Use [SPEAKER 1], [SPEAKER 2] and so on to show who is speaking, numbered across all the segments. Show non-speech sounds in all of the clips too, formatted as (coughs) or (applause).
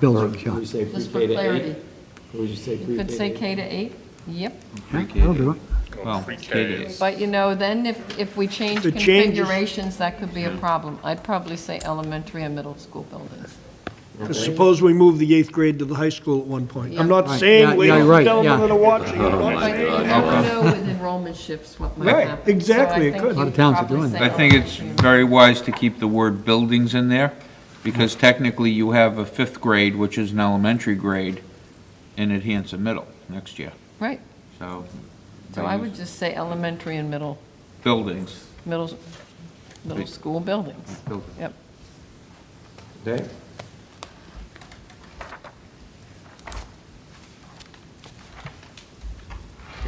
[SPEAKER 1] buildings,
[SPEAKER 2] Or would
[SPEAKER 1] yeah.
[SPEAKER 2] you say
[SPEAKER 3] Just for
[SPEAKER 2] pre-K to eight?
[SPEAKER 3] clarity.
[SPEAKER 2] Or would you say
[SPEAKER 3] You
[SPEAKER 2] pre-K
[SPEAKER 3] could
[SPEAKER 2] to
[SPEAKER 3] say
[SPEAKER 2] eight?
[SPEAKER 3] K to eight, yep.
[SPEAKER 1] Yeah, That'll do it.
[SPEAKER 4] Well, K to
[SPEAKER 3] But you know, then if, if we change
[SPEAKER 5] The changes-
[SPEAKER 3] configurations, that could be a problem. I'd probably say elementary and middle school buildings.
[SPEAKER 5] Suppose we move the eighth grade to the high school at one point. I'm not
[SPEAKER 1] Right. Yeah,
[SPEAKER 5] saying, ladies
[SPEAKER 1] yeah, right,
[SPEAKER 5] and gentlemen
[SPEAKER 1] yeah.
[SPEAKER 5] that
[SPEAKER 6] (laughs)
[SPEAKER 5] are watching, I'm
[SPEAKER 6] Oh
[SPEAKER 5] not
[SPEAKER 3] But you never know with enrollment shifts what might
[SPEAKER 5] Right,
[SPEAKER 3] happen. So
[SPEAKER 5] exactly,
[SPEAKER 3] I
[SPEAKER 5] it
[SPEAKER 3] think
[SPEAKER 5] could.
[SPEAKER 3] you
[SPEAKER 5] A lot
[SPEAKER 1] of towns are
[SPEAKER 3] probably
[SPEAKER 1] doing
[SPEAKER 3] say
[SPEAKER 1] that.
[SPEAKER 4] I think it's
[SPEAKER 3] elementary.
[SPEAKER 4] very wise to keep the word buildings in there, because technically you have a fifth grade, which is an elementary grade, in at Hanson Middle next year,
[SPEAKER 3] Right,
[SPEAKER 4] so.
[SPEAKER 3] so I would just say elementary and middle,
[SPEAKER 4] Buildings,
[SPEAKER 3] middle, middle school buildings.
[SPEAKER 4] buildings.
[SPEAKER 3] Yep,
[SPEAKER 2] Okay.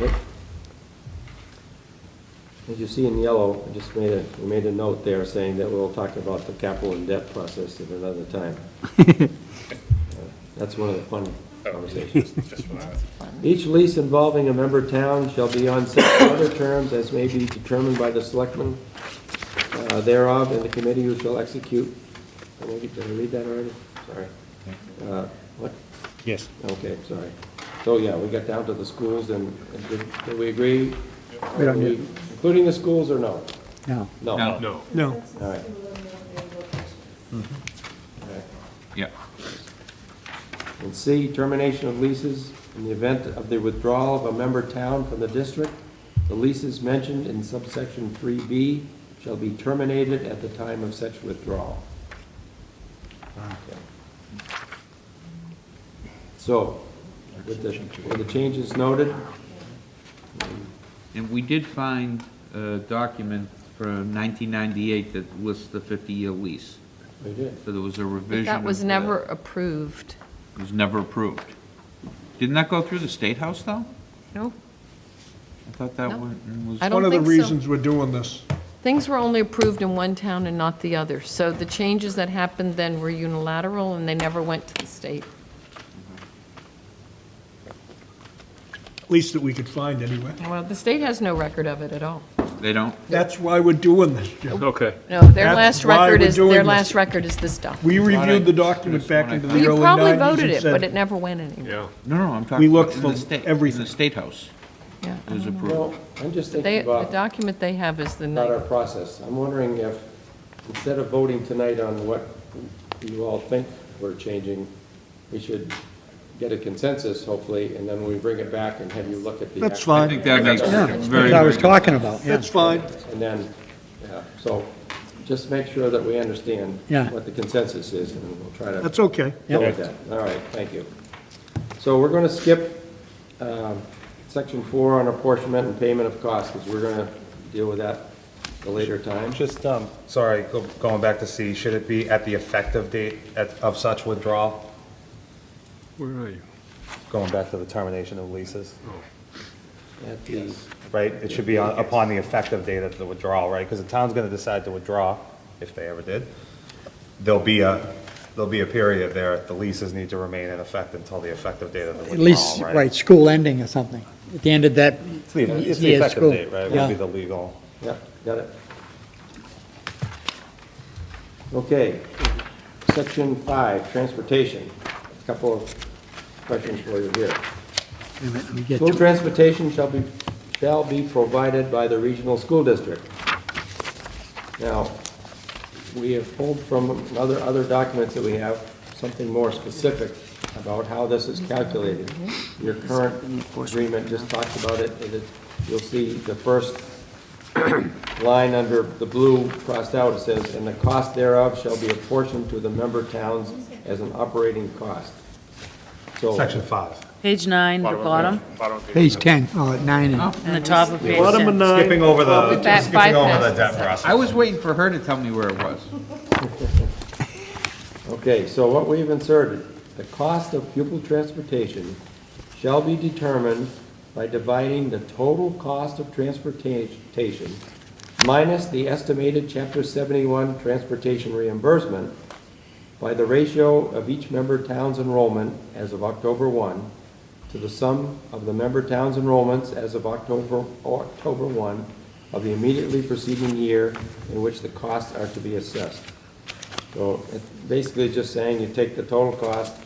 [SPEAKER 2] Yep. As you see in yellow, I just made a, we made a note there saying that we'll talk about the capital and debt process at another time. That's one of the fun conversations. Each lease involving a member town shall be on such (coughs) other terms as may be determined by the selectmen uh, thereof, and the committee who shall execute. Did I get- did I read that already? Sorry. Uh, What?
[SPEAKER 6] Yes.
[SPEAKER 2] Okay, sorry. So, yeah, we got down to the schools, and and did did we agree?
[SPEAKER 1] We don't need-
[SPEAKER 2] Including the schools, or no?
[SPEAKER 1] No.
[SPEAKER 2] No.
[SPEAKER 4] No.
[SPEAKER 6] No.
[SPEAKER 5] No,
[SPEAKER 2] All right.
[SPEAKER 4] Yeah,
[SPEAKER 2] And C, termination of leases in the event of the withdrawal of a member town from the district. The leases mentioned in subsection 3B shall be terminated at the time of such withdrawal. Okay. So, with the, with the changes noted,
[SPEAKER 4] and we did find a document from 1998 that lists the 50-year lease,
[SPEAKER 2] we did.
[SPEAKER 4] so there was a revision.
[SPEAKER 3] but that was
[SPEAKER 4] of the-
[SPEAKER 3] never approved,
[SPEAKER 4] It was never approved. Didn't that go through the State House, though?
[SPEAKER 3] no?
[SPEAKER 4] I thought that
[SPEAKER 3] No.
[SPEAKER 4] one was.
[SPEAKER 3] I don't
[SPEAKER 5] one of the
[SPEAKER 3] think so.
[SPEAKER 5] reasons we're doing this.
[SPEAKER 3] Things were only approved in one town and not the other, so the changes that happened then were unilateral, and they never went to the state.
[SPEAKER 5] least that we could find anyway.
[SPEAKER 3] Well, the state has no record of it at all.
[SPEAKER 4] They don't?
[SPEAKER 5] That's why we're doing this, Jim.
[SPEAKER 6] Okay.
[SPEAKER 3] No, their
[SPEAKER 5] That's
[SPEAKER 3] last
[SPEAKER 5] why
[SPEAKER 3] record
[SPEAKER 5] we're
[SPEAKER 3] is,
[SPEAKER 5] doing
[SPEAKER 3] their
[SPEAKER 5] this.
[SPEAKER 3] last record is this document.
[SPEAKER 5] We reviewed the
[SPEAKER 4] Right.
[SPEAKER 5] document back into the
[SPEAKER 3] You
[SPEAKER 5] early
[SPEAKER 3] probably
[SPEAKER 5] 90s
[SPEAKER 3] voted
[SPEAKER 5] and
[SPEAKER 3] it, but it
[SPEAKER 5] said,
[SPEAKER 3] never went anywhere.
[SPEAKER 6] Yeah.
[SPEAKER 4] No, no, I'm talking.
[SPEAKER 5] We
[SPEAKER 4] about
[SPEAKER 5] looked
[SPEAKER 4] in the
[SPEAKER 5] for
[SPEAKER 4] state- In
[SPEAKER 5] everything.
[SPEAKER 4] the State House,
[SPEAKER 3] Yeah.
[SPEAKER 4] it was
[SPEAKER 2] Well,
[SPEAKER 4] approved.
[SPEAKER 2] I'm just
[SPEAKER 3] They,
[SPEAKER 2] thinking
[SPEAKER 3] the
[SPEAKER 2] about,
[SPEAKER 3] document they have is the
[SPEAKER 2] about our
[SPEAKER 3] night.
[SPEAKER 2] process. I'm wondering if, instead of voting tonight on what you all think we're changing, we should get a consensus, hopefully, and then we bring it back and have you look at the.
[SPEAKER 5] that's
[SPEAKER 2] actual-
[SPEAKER 4] I
[SPEAKER 5] fine,
[SPEAKER 4] think that makes
[SPEAKER 1] Yeah,
[SPEAKER 4] very,
[SPEAKER 1] that's
[SPEAKER 4] very.
[SPEAKER 1] what I was
[SPEAKER 4] good.
[SPEAKER 1] talking about, yeah.
[SPEAKER 5] that's fine.
[SPEAKER 2] And then, yeah, so just make sure that we understand
[SPEAKER 1] Yeah.
[SPEAKER 2] what the consensus is, and we'll try to.
[SPEAKER 5] That's okay.
[SPEAKER 2] Go with that. All right, thank you. So we're going to skip um, section four on apportionment and payment of costs, because we're going to deal with that at a later time.
[SPEAKER 7] Just, um, sorry, go- going back to C, should it be at the effective date at- of such withdrawal?
[SPEAKER 6] Where are you?
[SPEAKER 7] Going back to the termination of leases,
[SPEAKER 2] At the-
[SPEAKER 7] right? It should be on- upon the effective date of the withdrawal, right? Because the town's going to decide to withdraw, if they ever did. There'll be a, there'll be a period there, the leases need to remain in effect until the effective date of the
[SPEAKER 1] At least,
[SPEAKER 7] withdrawal, right?
[SPEAKER 1] right, school ending or something. At the end of that
[SPEAKER 7] It's the it's the
[SPEAKER 1] year's
[SPEAKER 7] effective
[SPEAKER 1] school.
[SPEAKER 7] date, right?
[SPEAKER 1] Yeah.
[SPEAKER 7] Would be the legal.
[SPEAKER 2] Yeah, got it. Okay, section five, transportation. A Couple of questions for you here.
[SPEAKER 1] Wait a minute, let me get
[SPEAKER 2] School
[SPEAKER 1] to-
[SPEAKER 2] transportation shall be, shall be provided by the regional school district. Now, we have pulled from other, other documents that we have, something more specific about how this is calculated. Your current agreement just talks about it, and it, you'll see the first (clears throat) line under the blue crossed out, it says, "And the cost thereof shall be apportioned to the member towns as an operating cost." So.
[SPEAKER 7] Section five.
[SPEAKER 8] Page nine, the bottom,
[SPEAKER 1] Page 10, oh, at 9 and,
[SPEAKER 8] and the top of page
[SPEAKER 5] Bottom of
[SPEAKER 8] ten.
[SPEAKER 5] nine.
[SPEAKER 7] Skipping over the,
[SPEAKER 3] that
[SPEAKER 7] skipping over the
[SPEAKER 3] bypasses
[SPEAKER 7] debt
[SPEAKER 3] section.
[SPEAKER 7] process.
[SPEAKER 4] I was waiting for her to tell me where it was.
[SPEAKER 2] Okay, so what we've inserted, the cost of pupil transportation shall be determined by dividing the total cost of transportation minus the estimated chapter seventy-one transportation reimbursement by the ratio of each member town's enrollment as of October one to the sum of the member town's enrollments as of October, October one of the immediately preceding year in which the costs are to be assessed. So it's basically just saying you take the total cost